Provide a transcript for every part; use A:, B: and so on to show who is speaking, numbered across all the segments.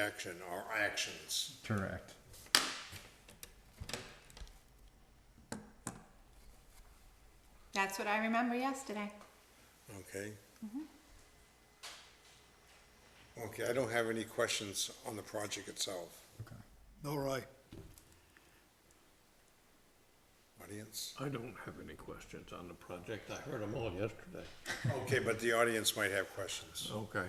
A: action or um, actions.
B: Correct.
C: That's what I remember yesterday.
A: Okay. Okay, I don't have any questions on the project itself.
B: Okay.
D: All right.
A: Audience?
E: I don't have any questions on the project. I heard them all yesterday.
A: Okay, but the audience might have questions.
E: Okay.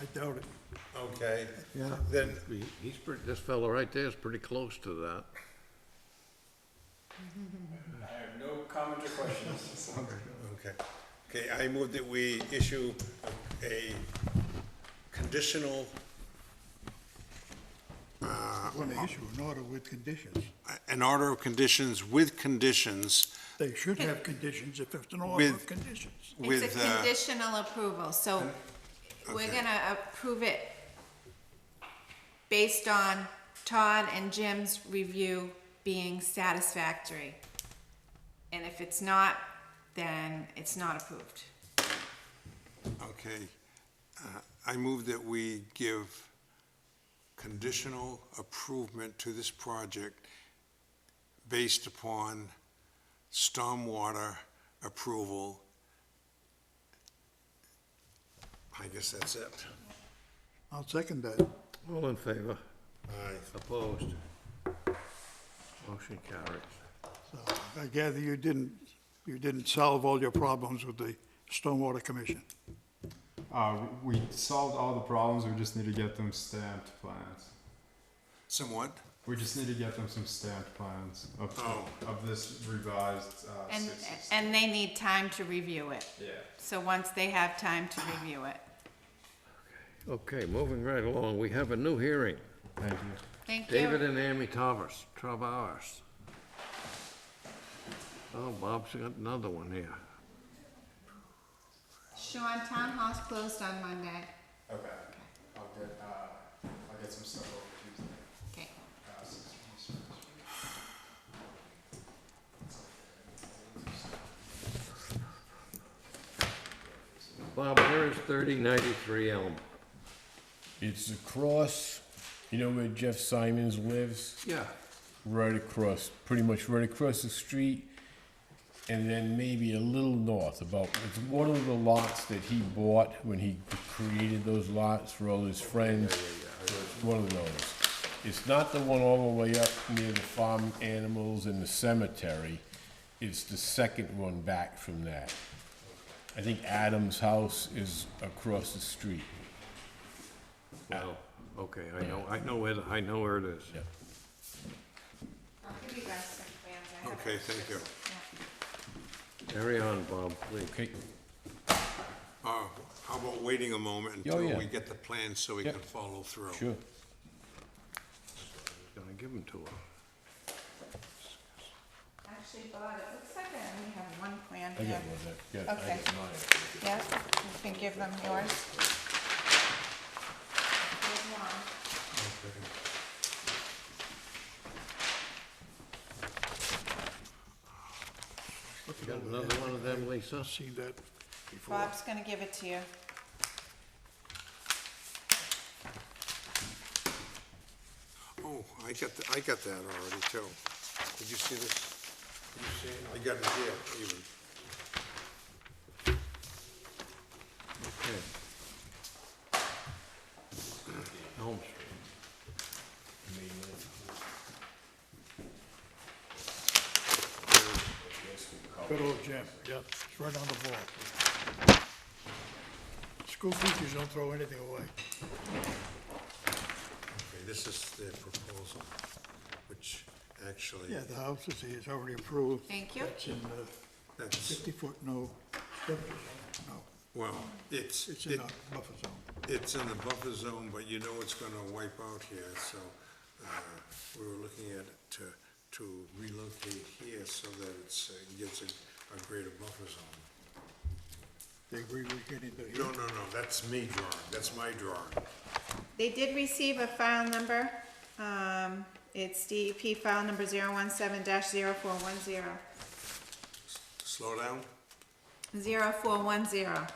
D: I doubt it.
A: Okay.
D: Yeah.
A: Then,
E: He's pretty, this fellow right there is pretty close to that.
F: I have no comment or questions.
A: okay. Okay, I move that we issue a conditional,
D: Want to issue an order with conditions.
A: an order of conditions with conditions
D: They should have conditions if it's an order
A: With-
D: of conditions.
A: with.
C: It's a
A: uh,
C: conditional approval, so we're
A: okay.
C: gonna approve it based on Todd and Jim's review being satisfactory. And if it's not, then it's not approved.
A: Okay, Uh, I move that we give conditional approval to this project based upon stormwater approval. I guess that's it.
D: I'll second that.
E: All in favor?
A: Aye.
E: Opposed? Motion carries.
D: So I gather you didn't, you didn't solve all your problems with the Stormwater Commission.
G: Uh, we solved all the problems. We just need to get them stamped plans.
A: Somewhat?
G: We just need to get them some stamped plans of,
A: Oh.
G: of this revised. Uh,
C: And,
G: 60.
C: and they need time to review it.
G: yeah.
C: So once they have time to review it.
E: Okay, moving right along, we have a new hearing.
G: Thank you.
C: Thank you.
E: David and Amy Tavers, twelve hours. Oh, Bob's got another one here.
C: Sean, Town Hall's closed on Monday.
G: Okay. I'll get. Uh, I'll get some stuff over Tuesday.
C: Okay.
G: Uh, since we-
E: Bob, here is thirty ninety-three Elm.
H: It's across, you know where Jeff Simons lives?
E: Yeah.
H: Right across, pretty much right across the street, and then maybe a little north. About it's one of the lots that he bought when he created those lots for all his friends. It's One of those. It's not the one all the way up near the farm animals and the cemetery. It's the second one back from that. I think Adam's house is across the street.
E: Well, okay, I know, I know it, I know where it is.
H: Yeah.
C: I'll give you guys some plans. I have
A: Okay, thank you.
E: Carry on, Bob, please.
H: Okay.
A: Uh, How about waiting a moment
H: Oh,
A: until
H: yeah.
A: we get the plan so we
H: Yep.
A: can follow through?
H: Sure.
E: Gonna give them to her.
C: Actually, Bob, it looks like I only have one plan
H: I
C: here.
H: got one there. Got- I
C: Okay.
H: got mine.
C: Yes, you can give them yours. Here's one.
E: You got another one of them, Lisa?
D: I've seen that before.
C: Bob's gonna give it to you.
A: Oh, I got, th- I got that already too. Did you see this? Did you see it? I got it here even.
E: Okay. Elm Street.
D: Good old Jim, yeah, it's right on the ball. School teachers don't throw anything away.
A: Okay, this is the proposal, which actually,
D: Yeah, the house is, is already approved.
C: Thank you.
D: It's in the
A: that's,
D: fifty-foot no, structure. no,
A: well, it's,
D: it's in
A: it-
D: the buffer zone.
A: it's in the buffer zone, but you know it's gonna wipe out here, so uh, we were looking at it to, to relocate here so that it's, uh, gets a, a greater buffer zone.
D: They agree with getting the.
A: No, no, no, that's me drawing, that's my drawing.
C: They did receive a file number. Um, it's DEP file number zero one seven dash zero four one zero.
A: Slow down?
C: Zero four one zero.